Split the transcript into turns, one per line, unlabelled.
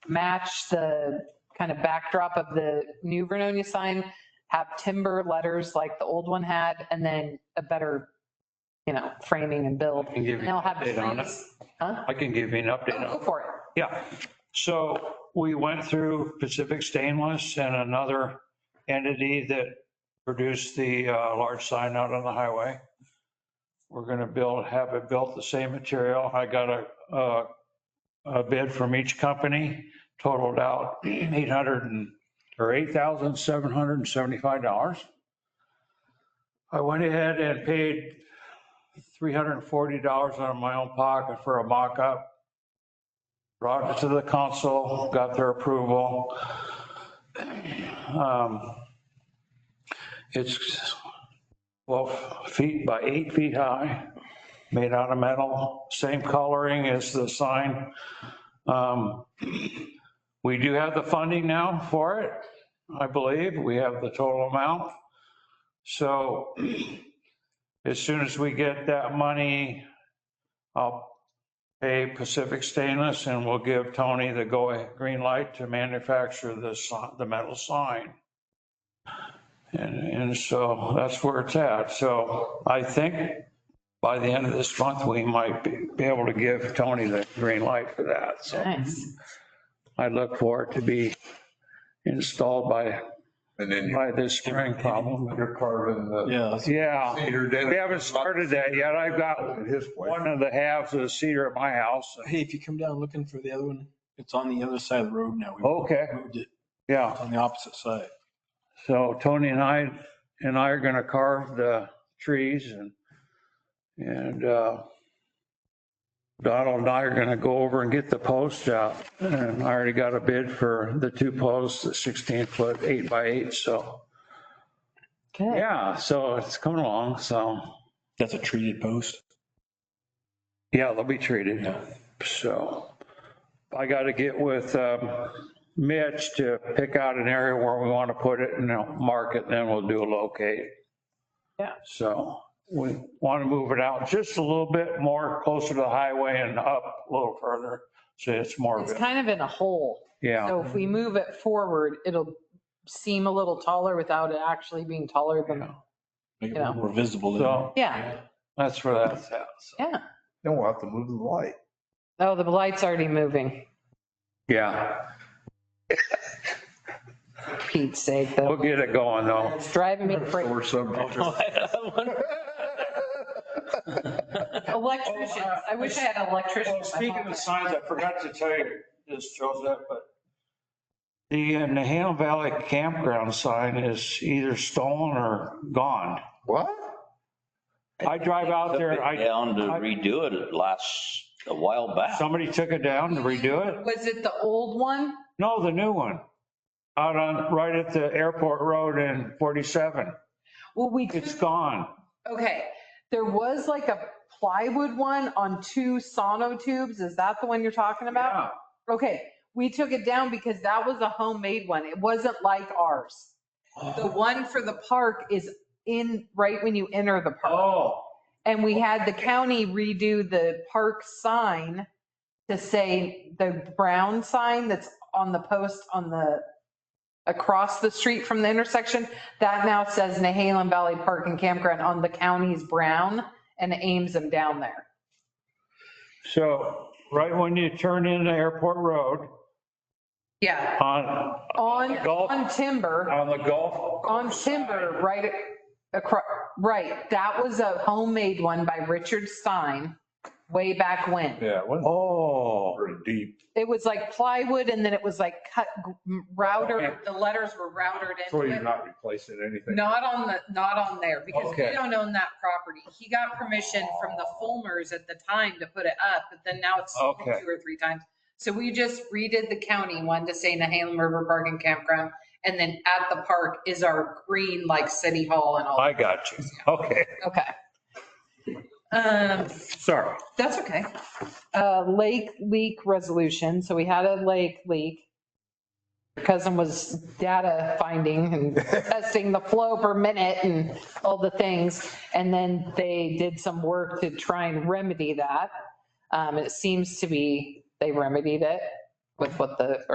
match the kind of backdrop of the new Vernonia sign, have timber letters like the old one had, and then a better, you know, framing and build.
I can give
And
you
they'll
an
have.
update on it.
trees. Huh? Oh,
I can give you an update on it.
Go for it.
Yeah, so we went through Pacific Stainless and another entity that produced the uh, large sign out on the highway. We're gonna build, have it built the same material. I got a, a- a bid from each company, totaled out 800 and, or $8,775. I went ahead and paid $340 out of my own pocket for a mock-up brought it to the council, got their approval. Um, It's 12 feet by eight feet high, made out of metal, same coloring as the sign. Um, We do have the funding now for it, I believe. We have the total amount. So as soon as we get that money, I'll pay Pacific Stainless and we'll give Tony the go, green light to manufacture the, si- the metal sign. And, and so that's where it's at. So I think by the end of this month, we might be, be able to give Tony the green light for that. So
Nice.
I look for it to be installed by,
And then you
by this spring problem.
you're carving the
Yeah,
Yeah,
cedar
we
den.
haven't started that yet. I've got
His way.
one of the halves of the cedar at my house.
hey, if you come down looking for the other one, it's on the other side of the road now. We
Okay,
moved it.
yeah.
It's on the opposite side.
So Tony and I, and I are going to carve the trees and, and uh, Donald and I are going to go over and get the posts out. And I already got a bid for the two posts, the 16 foot, eight by eight. So,
Good.
yeah, so it's coming along. So,
That's a treated post.
yeah, they'll be treated. So I got to get with um, Mitch to pick out an area where we want to put it and then mark it, then we'll do a locate.
Yeah.
So we want to move it out just a little bit more closer to the highway and up a little further. So it's more,
It's
of a-
kind of in a hole.
yeah,
So if we move it forward, it'll seem a little taller without it actually being taller than,
Make it a
Yeah.
little more visible. than-
so
yeah,
that's where that's at. So,
yeah.
Then we'll have to move the light.
Oh, the light's already moving.
Yeah,
For Pete's sake,
we'll
though.
get it going though.
It's driving me crazy.
Or something.
Electricians. I wish I had
Well,
electricians.
Oh, uh, speaking of signs, I forgot to tell you this, Joseph, but the uh, Nahal Valley campground sign is either stolen or gone.
What?
I drive out there,
Took it
I,
Down to redo it last, a while back.
somebody took it down to redo it.
Was it the old one?
No, the new one. Out on, right at the airport road in 47.
Well, we,
It's
took-
gone.
okay, there was like a plywood one on two sono tubes. Is that the one you're talking about?
Yeah.
Okay, we took it down because that was a homemade one. It wasn't like ours. The
Oh.
one for the park is in, right when you enter the park.
Oh,
And we had the county redo the park sign to say the brown sign that's on the post on the, across the street from the intersection. That now says Nahalem Valley Park and Campground on the county's brown and aims them down there.
so right when you turn into airport road
Yeah,
on,
on,
Golf.
on timber,
on the golf.
on timber, right across, right. That was a homemade one by Richard Stein way back when.
Yeah, it wasn't
Oh.
very deep.
It was like plywood and then it was like cut g- router,
Okay.
the letters were routed
So
into
you're
it.
not replacing anything.
Not on the, not on there because we
Okay.
don't own that property. He got permission from the Fulmers at the time to put it up, but then now it's sold
Okay.
two or three times. So we just redid the county one to say Nahalem River Park and Campground. And then at the park is our green like city hall and all.
I got you. Okay,
Okay. Um,
sorry.
That's okay. Uh, lake leak resolution. So we had a lake leak. Your Cousin was data finding and testing the flow per minute and all the things. And then they did some work to try and remedy that. Um, it seems to be, they remedied it with what the